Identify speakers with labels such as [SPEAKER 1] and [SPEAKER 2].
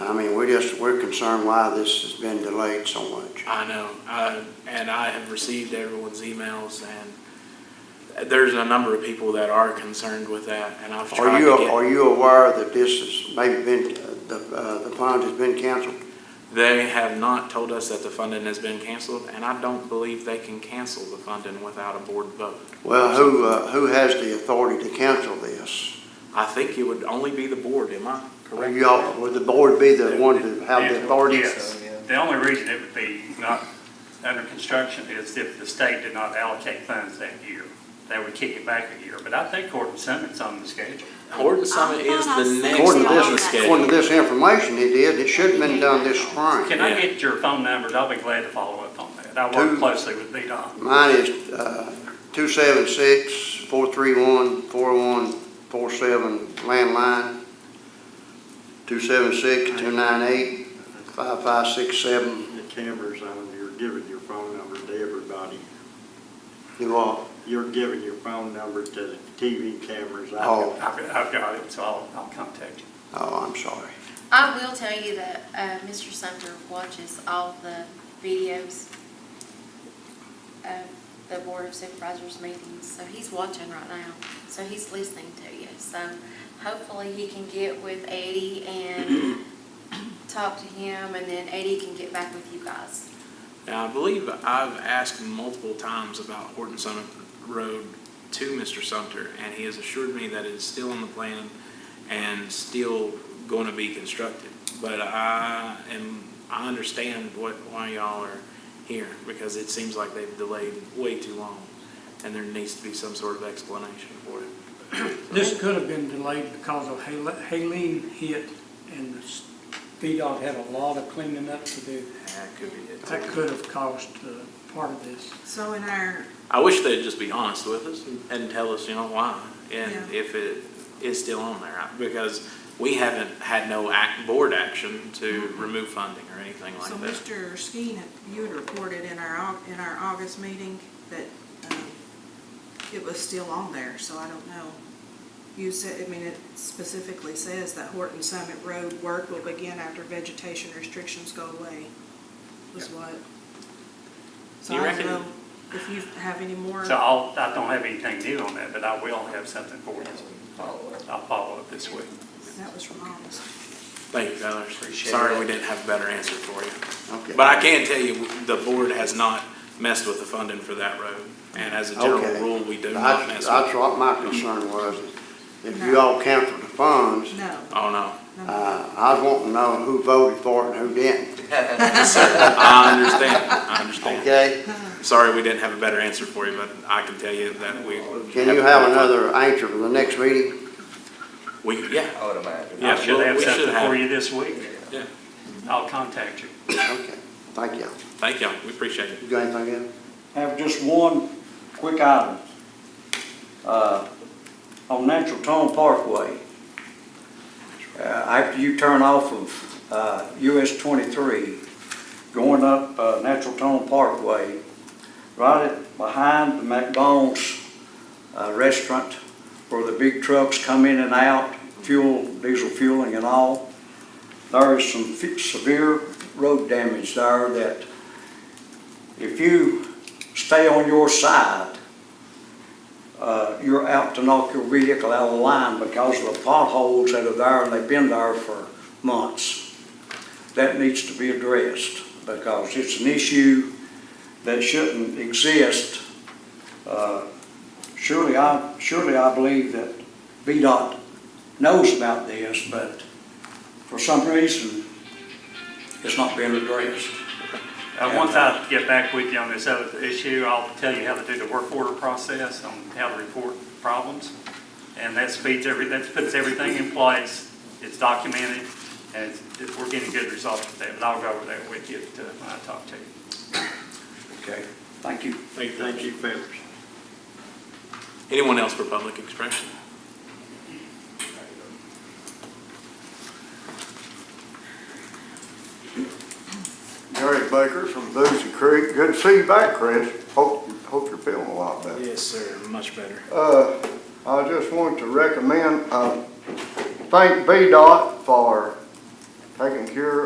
[SPEAKER 1] I mean, we're just, we're concerned why this has been delayed so much.
[SPEAKER 2] I know, I, and I have received everyone's emails, and there's a number of people that are concerned with that, and I've
[SPEAKER 1] Are
[SPEAKER 2] tried
[SPEAKER 1] you,
[SPEAKER 2] to
[SPEAKER 1] are
[SPEAKER 2] get.
[SPEAKER 1] you aware that this has maybe been, the, uh, the fund has been canceled?
[SPEAKER 2] They have not told us that the funding has been canceled, and I don't believe they can cancel the funding without a board vote.
[SPEAKER 1] Well, who, uh, who has the authority to cancel this?
[SPEAKER 2] I think it would only be the board, am I
[SPEAKER 1] Are
[SPEAKER 2] correct?
[SPEAKER 1] you all, would the board be the one to have the
[SPEAKER 3] Yeah,
[SPEAKER 1] authority?
[SPEAKER 3] Yes. The only reason it would be not under construction is if the state did not allocate funds that year. They would kick it back a year, but I think Gordon Summit's on the schedule.
[SPEAKER 2] Horton Summit is
[SPEAKER 4] I thought I
[SPEAKER 2] the next
[SPEAKER 1] According to
[SPEAKER 2] on the
[SPEAKER 1] this, according
[SPEAKER 2] schedule.
[SPEAKER 1] to this information, it is, it should have been done this spring.
[SPEAKER 3] Can I
[SPEAKER 2] Yeah.
[SPEAKER 3] get your phone numbers? I'll be glad to follow up on that. I
[SPEAKER 1] Who-
[SPEAKER 3] work closely with VDOT.
[SPEAKER 1] Mine is, uh, two seven six, four three one, four one, four seven, landline. Two seven six, two nine eight, five five six seven,
[SPEAKER 5] The cameras on, you're giving your phone number to everybody.
[SPEAKER 1] you all.
[SPEAKER 5] You're giving your phone number to the TV cameras. I-
[SPEAKER 1] Oh.
[SPEAKER 3] I've I've got it, so I'll, I'll contact you.
[SPEAKER 1] Oh, I'm sorry.
[SPEAKER 4] I will tell you that uh, Mr. Sumter watches all the videos of the Board of Supervisors meetings, so he's watching right now. So he's listening to you. So hopefully he can get with Eddie and talk to him, and then Eddie can get back with you guys.
[SPEAKER 2] Now, I believe I've asked multiple times about Horton Summit Road to Mr. Sumter, and he has assured me that it is still on the plan and still going to be constructed. But I am, I understand what, why y'all are here, because it seems like they've delayed way too long, and there needs to be some sort of explanation for it.
[SPEAKER 6] This could have been delayed because of Hal- Haleen hit and the s- VDOT had a lot of cleaning up to do.
[SPEAKER 2] That could be it.
[SPEAKER 6] That could have caused uh, part of this.
[SPEAKER 7] So in our,
[SPEAKER 2] I wish they'd just be honest with us and tell us, you know, why, and if it is still on there, because we haven't had no act, board action to remove funding or anything
[SPEAKER 7] so
[SPEAKER 2] like that.
[SPEAKER 7] Mr. Skeen, you had reported in our, Au- in our August meeting that um, it was still on there, so I don't know. You said, I mean, it specifically says that Horton Summit Road work will begin after vegetation restrictions go away, was what. So
[SPEAKER 2] You
[SPEAKER 7] I
[SPEAKER 2] reckon-
[SPEAKER 7] don't know if you have any more.
[SPEAKER 3] So I'll, I don't have anything new on that, but I will have something for you. I'll follow up this week.
[SPEAKER 7] That was from August.
[SPEAKER 2] Thank you, fellas.
[SPEAKER 3] Appreciate
[SPEAKER 2] Sorry
[SPEAKER 3] it.
[SPEAKER 2] we didn't have a better answer for you.
[SPEAKER 1] Okay.
[SPEAKER 2] But I can tell you, the board has not messed with the funding for that road, and as a general
[SPEAKER 1] Okay.
[SPEAKER 2] rule, we do not
[SPEAKER 1] That's,
[SPEAKER 2] mess with.
[SPEAKER 1] that's what my concern was. If you all canceled the funds,
[SPEAKER 7] No,
[SPEAKER 2] Oh, no.
[SPEAKER 7] no, no.
[SPEAKER 1] uh, I want to know who voted for it and who didn't,
[SPEAKER 2] I understand, I understand.
[SPEAKER 1] okay?
[SPEAKER 2] Sorry we didn't have a better answer for you, but I can tell you that we.
[SPEAKER 1] Can you have another answer for the next meeting?
[SPEAKER 2] We, yeah,
[SPEAKER 8] I would imagine.
[SPEAKER 2] Yeah,
[SPEAKER 3] I should
[SPEAKER 2] well,
[SPEAKER 3] have
[SPEAKER 2] we should
[SPEAKER 3] something
[SPEAKER 2] have-
[SPEAKER 3] for you this week.
[SPEAKER 2] Yeah.
[SPEAKER 3] I'll contact you.
[SPEAKER 1] Okay, thank you.
[SPEAKER 2] Thank y'all, we appreciate it.
[SPEAKER 1] You got anything else?
[SPEAKER 5] Have just one quick item. Uh, On Natural Tone Parkway, uh, after you turn off of uh, US 23, going up uh, Natural Tone Parkway, right at- behind the McDonald's uh, restaurant where the big trucks come in and out, fuel, diesel fueling and all, there is some fe- severe road damage there that if you stay on your side, uh, you're out to knock your vehicle out of the line because of the potholes that are there, and they've been there for months. That needs to be addressed, because it's an issue that shouldn't exist. Uh, Surely I, surely I believe that VDOT knows about this, but for some reason, it's not being addressed.
[SPEAKER 3] Uh, Once I get back with you on this other issue, I'll tell you how to do the work order process on how to report problems. And that speeds every, that puts everything in place, it's documented, and it's- we're getting good results with that. But I'll go over that with you uh, when I talk to you.
[SPEAKER 5] Okay, thank you.
[SPEAKER 2] Thank
[SPEAKER 5] you, Phil.
[SPEAKER 2] Anyone else for public expression?
[SPEAKER 9] Gary Baker from Boozy Creek. Good to see you back, Chris. Hope, hope you're feeling a lot better.
[SPEAKER 2] Yes, sir, much better.
[SPEAKER 9] Uh, I just want to recommend, uh, thank VDOT for taking care